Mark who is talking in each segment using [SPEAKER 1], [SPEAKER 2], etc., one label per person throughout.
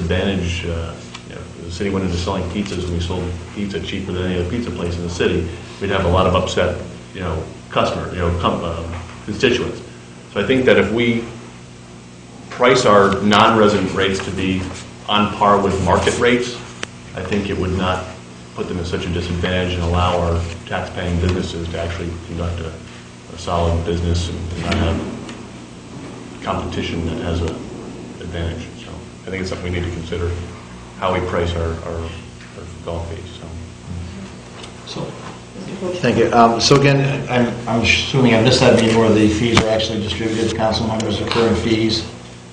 [SPEAKER 1] disadvantage, uh, you know, if the city went into selling pizzas, and we sold pizza cheaper than any other pizza place in the city, we'd have a lot of upset, you know, customer, you know, com- uh, constituents. So I think that if we price our non-resident rates to be on par with market rates, I think it would not put them at such a disadvantage and allow our taxpaying businesses to actually conduct a a solid business and not have competition that has an advantage. So I think it's something we need to consider, how we price our our our golf fees, so.
[SPEAKER 2] So,
[SPEAKER 3] Mr. Coach?
[SPEAKER 2] thank you. Um, So again, I'm I'm assuming I missed that meeting where the fees are actually distributed, to council members, recurring fees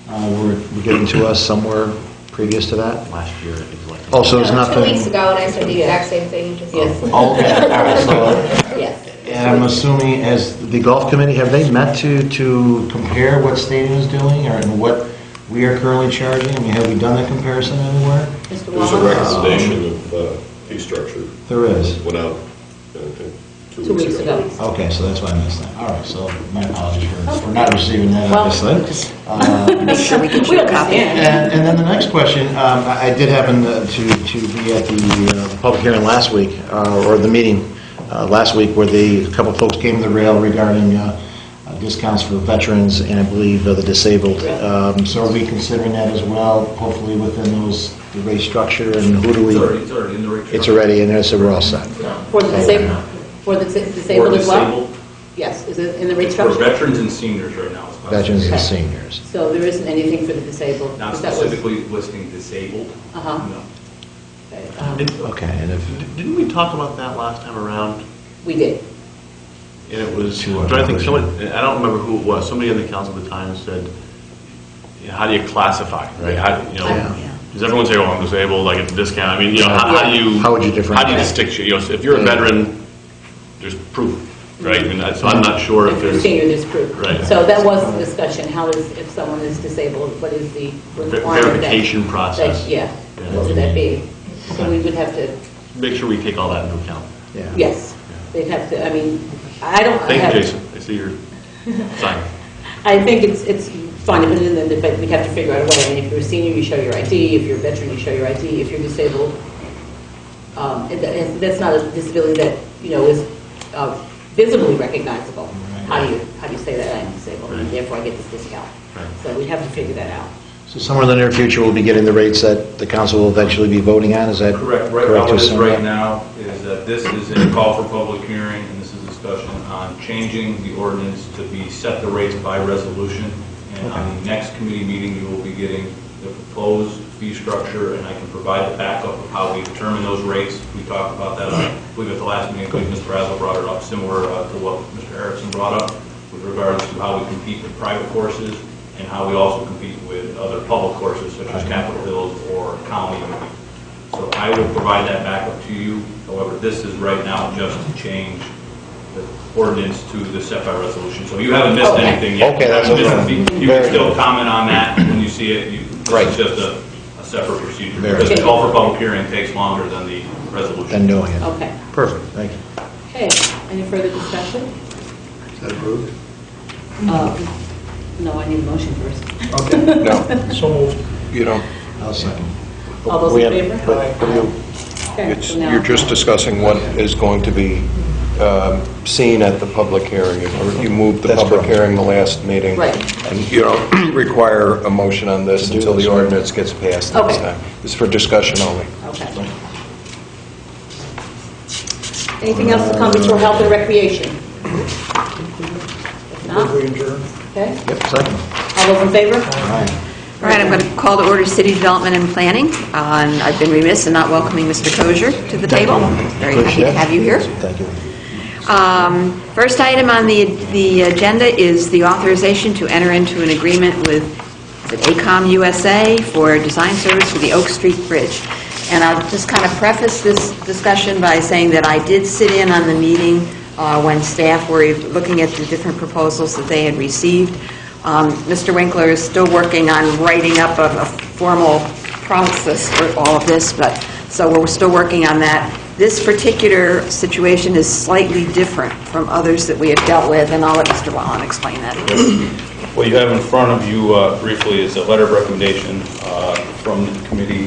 [SPEAKER 2] uh, were were given to us somewhere previous to that?
[SPEAKER 4] last year, it was like.
[SPEAKER 2] Oh, so it's
[SPEAKER 3] No,
[SPEAKER 2] nothing?
[SPEAKER 3] Two weeks ago, and I said the exact same thing, just, yes,
[SPEAKER 2] Oh, Okay, all right, so,
[SPEAKER 3] yes.
[SPEAKER 2] and I'm assuming as the golf committee, have they met to, to compare what stadium is doing or and what we are currently charging? I mean, have we done that comparison anywhere?
[SPEAKER 3] Mr.
[SPEAKER 5] There's a
[SPEAKER 3] Wallner?
[SPEAKER 5] recommendation of uh, fee structure
[SPEAKER 2] There is.
[SPEAKER 5] that went out, uh, I think,
[SPEAKER 3] Two weeks ago.
[SPEAKER 2] Okay, so that's why I missed that. All right, so my apologies for, for not receiving that,
[SPEAKER 6] Well,
[SPEAKER 2] obviously.
[SPEAKER 6] just-
[SPEAKER 2] Uh,
[SPEAKER 6] Make sure we get you a copy.
[SPEAKER 2] And, and then the next question, um, I I did happen to, to to be at the uh, public hearing last week, uh, or the meeting uh, last week, where the, a couple folks came to the rail regarding uh, uh, discounts for veterans and I believe uh, the disabled. Um, So are we considering that as well, hopefully within those, the rate structure, and who do we?
[SPEAKER 7] It's already in the rate.
[SPEAKER 2] It's already in there, so we're all set.
[SPEAKER 3] For the disabled, for the disa- disabled
[SPEAKER 7] For
[SPEAKER 3] as well?
[SPEAKER 7] disabled.
[SPEAKER 3] Yes, is it in the rate
[SPEAKER 7] For
[SPEAKER 3] structure?
[SPEAKER 7] veterans and seniors right now. it's not-
[SPEAKER 2] Veterans and
[SPEAKER 3] Okay.
[SPEAKER 2] seniors.
[SPEAKER 3] So there isn't anything for the disabled?
[SPEAKER 7] Not
[SPEAKER 3] Is that what-
[SPEAKER 7] specifically listing disabled.
[SPEAKER 3] Uh-huh.
[SPEAKER 7] No.
[SPEAKER 3] Um,
[SPEAKER 2] Okay, and if,
[SPEAKER 1] Didn't we talk about that last time around?
[SPEAKER 3] We did.
[SPEAKER 1] And it was,
[SPEAKER 2] To our
[SPEAKER 1] do I think
[SPEAKER 2] version.
[SPEAKER 1] someone, I don't remember who it was, somebody on the council at the time said, you know, how do you classify, right? How, you
[SPEAKER 2] Yeah.
[SPEAKER 1] know, does everyone say, well, I'm disabled, I get the discount, I mean, you know, how how do you?
[SPEAKER 2] How would you differentiate?
[SPEAKER 1] How do you distinguish, you know, if you're a veteran, there's proof, right? And I- so I'm not sure if
[SPEAKER 3] If you're
[SPEAKER 1] there's.
[SPEAKER 3] senior, there's proof.
[SPEAKER 1] Right.
[SPEAKER 3] So that was the discussion, how is, if someone is disabled, what is the requirement? that-
[SPEAKER 1] verification process.
[SPEAKER 3] that- Yeah,
[SPEAKER 1] Yeah.
[SPEAKER 3] what would that be? So we would have to,
[SPEAKER 1] Make sure we take all that into account.
[SPEAKER 2] yeah.
[SPEAKER 3] yes, they'd have to, I mean, I don't. I
[SPEAKER 1] Thank you,
[SPEAKER 3] have-
[SPEAKER 1] Jason, I see your sign.
[SPEAKER 3] I think it's, it's fine, but then, the- but we'd have to figure out a way. I mean, if you're a senior, you show your ID, if you're a veteran, you show your ID, if you're disabled, um, and that- and that's not a disability that, you know, is uh, visibly recognizable. How do you, how do you say that I'm disabled, and therefore I get this discount?
[SPEAKER 1] Right.
[SPEAKER 3] So we'd have to figure that out.
[SPEAKER 2] So somewhere in the near future, we'll be getting the rates that the council will eventually be voting on, is that?
[SPEAKER 7] Correct, right, how it is
[SPEAKER 2] Jason?
[SPEAKER 7] right now is that this is a call for public hearing, and this is discussion on changing the ordinance to be set the rates by resolution. And on the next committee meeting, you will be getting the proposed fee structure, and I can provide the backup of how we determine those rates. We talked about that, I believe at the last meeting, I believe Mr. Razzle brought it up, similar uh, to what Mr. Erickson brought up, with regards to how we compete with private courses, and how we also compete with other public courses, such as Capitol Hills or County. So I will provide that back up to you. However, this is right now just to change the ordinance to the set by resolution. So you haven't missed
[SPEAKER 3] Okay.
[SPEAKER 7] anything yet.
[SPEAKER 2] Okay, that's
[SPEAKER 7] You haven't
[SPEAKER 2] what
[SPEAKER 7] missed-
[SPEAKER 2] I'm-
[SPEAKER 7] You
[SPEAKER 2] very
[SPEAKER 7] can still
[SPEAKER 2] good.
[SPEAKER 7] comment on that when you see it. You-
[SPEAKER 2] Right.
[SPEAKER 7] It's just a, a separate procedure.
[SPEAKER 2] Very
[SPEAKER 7] Because the
[SPEAKER 3] good.
[SPEAKER 7] call for public hearing takes longer than the resolution.
[SPEAKER 2] Then doing it.
[SPEAKER 3] Okay.
[SPEAKER 2] Perfect, thank you.
[SPEAKER 3] Okay, any further discussion? Um, No, I need a motion first.
[SPEAKER 8] No. So moved. You know,
[SPEAKER 2] I'll second.
[SPEAKER 3] All those in
[SPEAKER 2] We have-
[SPEAKER 3] favor?
[SPEAKER 2] but- but you-
[SPEAKER 3] Okay,
[SPEAKER 8] it's,
[SPEAKER 3] so now-
[SPEAKER 8] you're just discussing what is going to be um, seen at the public hearing. You- You moved the
[SPEAKER 2] That's
[SPEAKER 8] public
[SPEAKER 2] correct.
[SPEAKER 8] hearing the last meeting.
[SPEAKER 3] Right.
[SPEAKER 8] And you don't require a motion on this
[SPEAKER 2] Do
[SPEAKER 8] until
[SPEAKER 2] this.
[SPEAKER 8] the ordinance gets passed next
[SPEAKER 3] Okay.
[SPEAKER 8] time. It's for discussion only.
[SPEAKER 3] Okay. Anything else to come before health and recreation? If not, okay,
[SPEAKER 2] Yep, second.
[SPEAKER 3] all those in favor?
[SPEAKER 2] All right.
[SPEAKER 6] All right, I'm going to call to order city development and planning. Uh, and I've been remiss in not welcoming Mr. Kozier to the table. Very happy to
[SPEAKER 2] Appreciate it.
[SPEAKER 6] have you here.
[SPEAKER 2] Thank you.
[SPEAKER 6] Um, First item on the the agenda is the authorization to enter into an agreement with, is it ACOM USA for design service for the Oak Street Bridge. And I'll just kind of preface this discussion by saying that I did sit in on the meeting uh, when staff were looking at the different proposals that they had received. Um, Mr. Winkler is still working on writing up a a formal process for all of this, but, so we're still working on that. This particular situation is slightly different from others that we have dealt with, and I'll let Mr. Wallen explain that.
[SPEAKER 7] What you have in front of you uh, briefly is a letter of recommendation uh, from the committee